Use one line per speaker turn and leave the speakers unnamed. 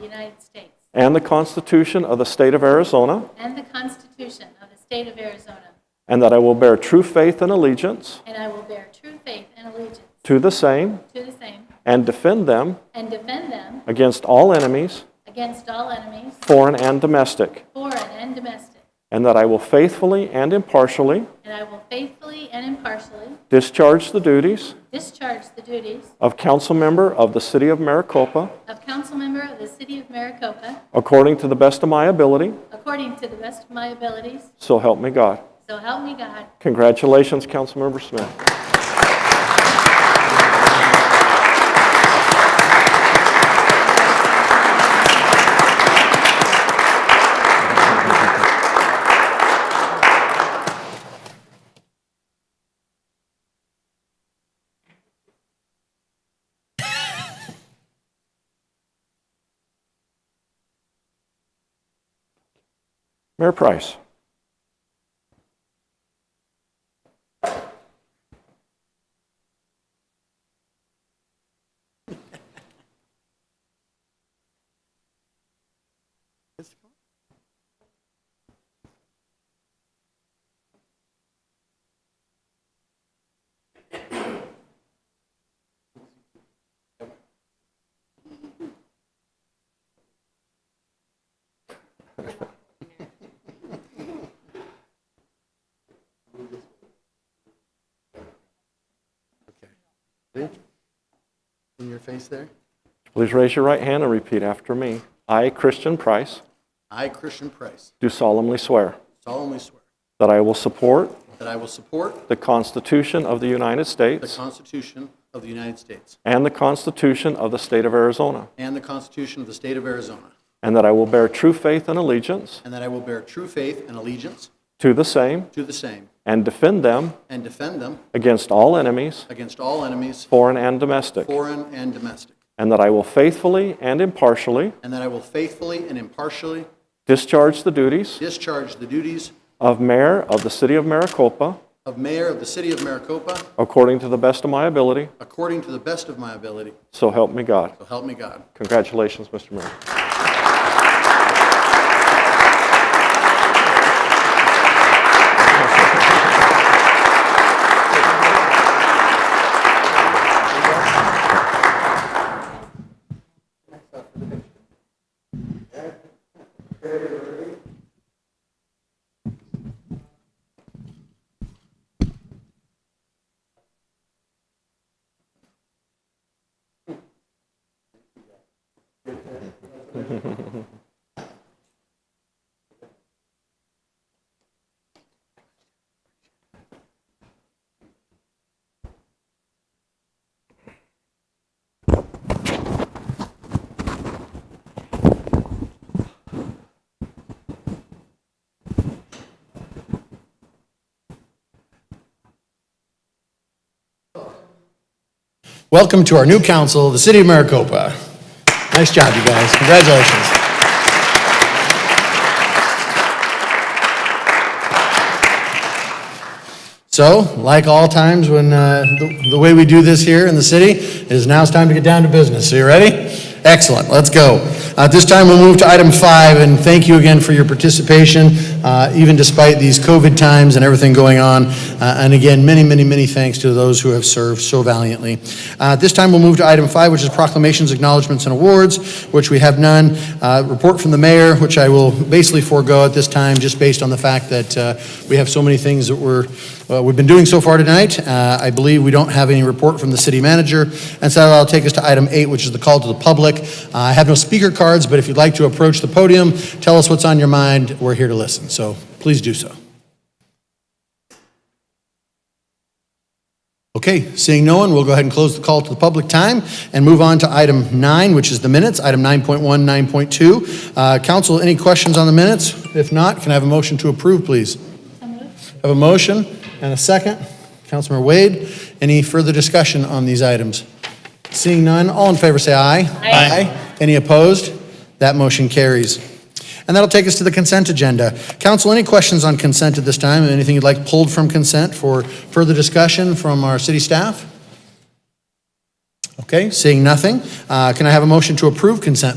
United States
and the Constitution of the State of Arizona,
and the Constitution of the State of Arizona,
and that I will bear true faith and allegiance
and I will bear true faith and allegiance
to the same
to the same
and defend them
and defend them
against all enemies,
against all enemies,
foreign and domestic,
foreign and domestic,
and that I will faithfully and impartially
and I will faithfully and impartially
discharge the duties
discharge the duties
of council member of the City of Maricopa
of council member of the City of Maricopa
according to the best of my ability,
according to the best of my abilities,
so help me God.
so help me God.
Congratulations, Councilmember Smith. Mayor Price.
Okay. Ready? In your face there.
Please raise your right hand and repeat after me. I, Christian Price,
I, Christian Price,
do solemnly swear
solemnly swear
that I will support
that I will support
the Constitution of the United
the
States
Constitution of the United States
and the Constitution of the State of Arizona,
and the Constitution of the State of Arizona,
and that I will bear true faith and allegiance
and that I will bear true faith and allegiance
to the same
to the same
and defend them
and defend them
against all enemies,
against all enemies,
foreign and domestic,
foreign and domestic,
and that I will faithfully and impartially
and that I will faithfully and impartially
discharge the duties
discharge the duties
of Mayor of the City of Maricopa
of Mayor of the City of Maricopa
according to the best of my ability,
according to the best of my ability.
so help me God.
So help me God.
Congratulations, Mr. Mayor.
Welcome to our new council, the City of Maricopa. Nice job, you guys. Congratulations. So, like all times when, uh, the the way we do this here in the city, is now it's time to get down to business. Are you ready? Excellent, let's go. At this time, we'll move to item five, and thank you again for your participation, uh, even despite these COVID times and everything going on. Uh, And again, many, many, many thanks to those who have served so valiantly. Uh, At this time, we'll move to item five, which is proclamations, acknowledgements, and awards, which we have none. Uh, Report from the mayor, which I will basically forego at this time, just based on the fact that uh, we have so many things that we're, uh, we've been doing so far tonight. Uh, I believe we don't have any report from the city manager, and so that'll take us to item eight, which is the call to the public. Uh, I have no speaker cards, but if you'd like to approach the podium, tell us what's on your mind, we're here to listen, so please do so. Okay, seeing no one, we'll go ahead and close the call to the public time and move on to item nine, which is the minutes, item 9.1, 9.2. Uh, Council, any questions on the minutes? If not, can I have a motion to approve, please?
So moved.
Have a motion and a second. Councilmember Wade, any further discussion on these items? Seeing none, all in favor say aye. Aye. Any opposed? That motion carries. And that'll take us to the consent agenda. Council, any questions on consent at this time? Anything you'd like pulled from consent for further discussion from our city staff? Okay, seeing nothing, uh, can I have a motion to approve consent,